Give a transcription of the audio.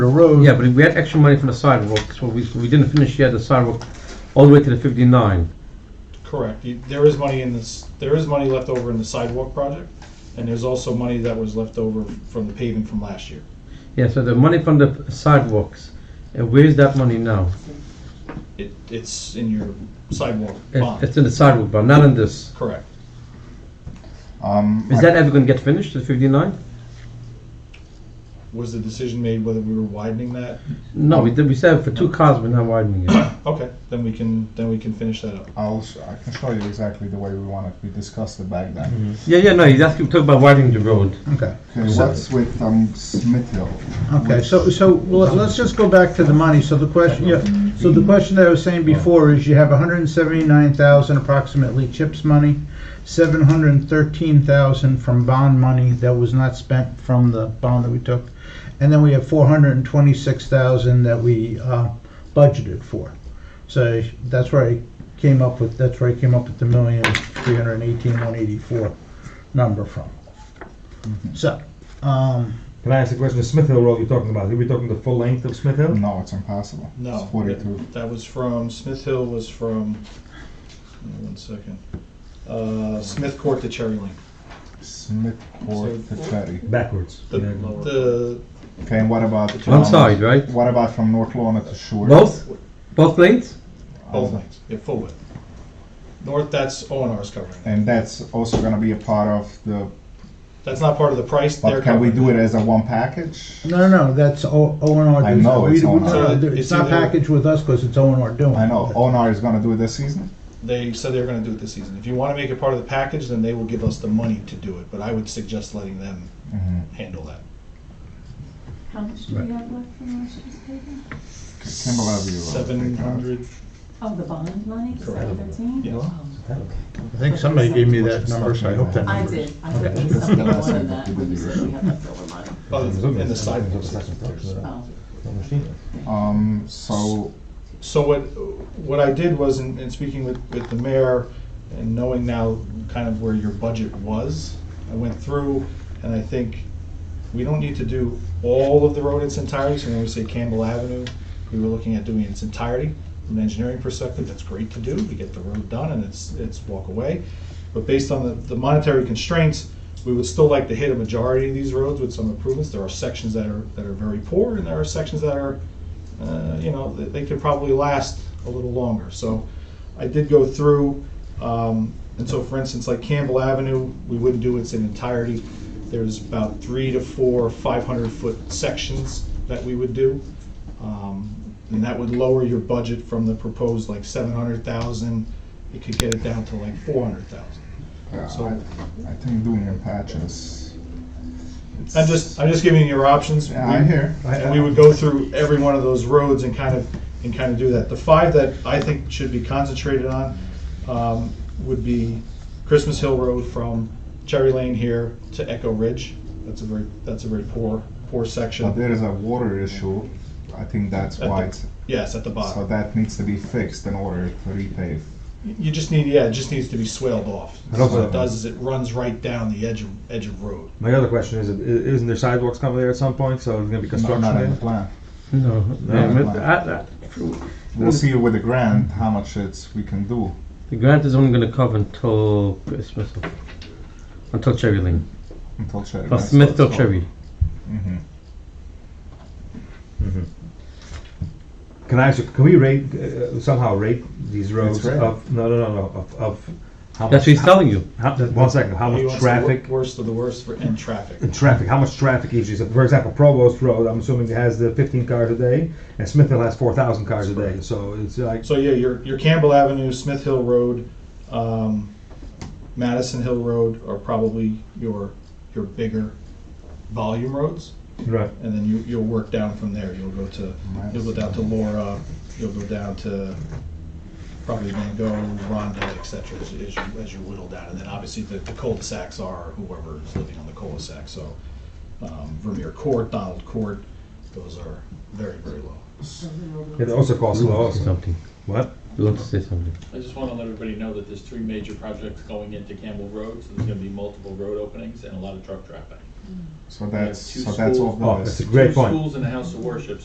the road. Yeah, but we had extra money from the sidewalk, so we, we didn't finish yet the sidewalk all the way to the fifty-nine. Correct. You- There is money in this, there is money left over in the sidewalk project, and there's also money that was left over from the paving from last year. Yeah, so the money from the sidewalks, uh, where's that money now? It, it's in your sidewalk It's it's bond. in the sidewalk, but not in this. Correct. Um, Is that ever gonna get finished, the fifty-nine? Was the decision made whether we were widening that? No, we did, we said for two cars, we're not widening it. Okay, then we can, then we can finish that up. I'll sh- I can show you exactly the way we want it. We discussed it back then. Mm-hmm. Yeah, yeah, no, he's asking, talk about widening the road. Okay. Okay, So- what's with um, Smith Hill? Okay, so, so, well, let's just go back to the money, so the question, yeah, so the question that I was saying before is you have hundred and seventy-nine thousand approximately CHIPS money, seven hundred and thirteen thousand from bond money that was not spent from the bond that we took, and then we have four hundred and twenty-six thousand that we, uh, budgeted for. So that's where I came up with, that's where I came up with the million, three hundred and eighteen, one eighty-four number from. So, um, Can I ask a question? The Smith Hill Road you're talking about, are we talking the full length of Smith Hill? No, it's impossible. No. It's 42. that- That was from, Smith Hill was from, hold on one second. Uh, Smith Court to Cherry Lane. Smith Court So- oh. to Ferry. Backwards. The, Yeah. the, Okay, and what about One side, right? What about from North Lorna to Shore? Both, both lanes? both lanes, yeah, full width. North, that's O and R's covering that. And that's also going to be a part of the. That's not part of the price, But they're can we covering do that. it as a one package? No, no, no, that's O and R. I know it's O&R. It's It's not either- packaged with us because it's O and R doing. I know it. Onar is going to do it this season. They said they were gonna do it this season. If you wanna make it part of the package, then they will give us the money to do it, but I would suggest letting them Mhm. handle that. How much do we have left from last year's payment? Kimball Avenue. Road, Seven uh, take that. hundred, Oh, the bond money, Correct. seven thirteen? Um, yes. I think somebody gave me that number, so I hope that I number. did, I thought there was something more than that, when you said we have left over money. Other than the sidewalks. Oh, Um, so So what, what I did was, in, in speaking with, with the mayor and knowing now kind of where your budget was, I went through and I think we don't need to do all of the road in its entirety. So when we say Campbell Avenue, we were looking at doing it in its entirety. From an engineering perspective, that's great to do. We get the road done and it's, it's walk away. But based on the, the monetary constraints, we would still like to hit a majority of these roads with some improvements. There are sections that are, that are very poor and there are sections that are uh, you know, th- they could probably last a little longer. So I did go through, um, and so for instance, like Campbell Avenue, we wouldn't do it in entirety. There's about three to four 500-foot sections that we would do. Um, And that would lower your budget from the proposed like 700,000. It could get it down to like 400,000. yeah, So- I, I think doing it in patches. it's- I'm just, I'm just giving you your options. Yeah, I hear. And we would go through every one of those roads and kind of, and kind of do that. The five that I think should be concentrated on um, would be Christmas Hill Road from Cherry Lane here to Echo Ridge. That's a very, that's a very poor, poor But section. there is a water issue. I think that's At the why. It's, Yes, at the so bottom. that needs to be fixed in order to repave. You just need, yeah, it just needs to be swaled off. And So also- what it does is it runs right down the edge of, edge of road. My other question is, i- isn't there sidewalks coming there at some point? So there's gonna be construction Not in there? the plan. No. No, but like- I- I- We'll see with the grant how much it's we can do. The grant is only gonna cover until Christmas, until Cherry Lane, Until Cherry. plus Smith till Cherry. Mm-hmm. Can I ask you, can we rate, uh, somehow rate these roads It's rare. of, no, no, no, no, of, of how much? That's what he's telling you. how- One second, how He much wants the wor- traffic, Worst of the worst for, and traffic. traffic, how much traffic each is? For example, Provost Road, I'm assuming it has the fifteen cars a day, and Smith Hill has four thousand cars a day, so it's like, So yeah, your, your Campbell Avenue, Smith Hill Road, um, Madison Hill Road are probably your, your bigger volume roads. right. And then you, you'll work down from there. You'll go to, you'll go down to Laura, you'll go down to probably Van Gogh, Rhonda, et cetera, as, as you, as you whittle down. And then obviously the, the cul-de-sacs are whoever is living on the cul-de-sac. So, um, Vermeer Court, Donald Court, those are very, very low. It also costs a lot also. Something. What? You want to say something? I just want to let everybody know that there's three major projects going into Campbell Road, so there's going to be multiple road openings and a lot of truck traffic. So that's, two so that's schools. off the Oh, list. that's a great Two point. schools and a house of worship,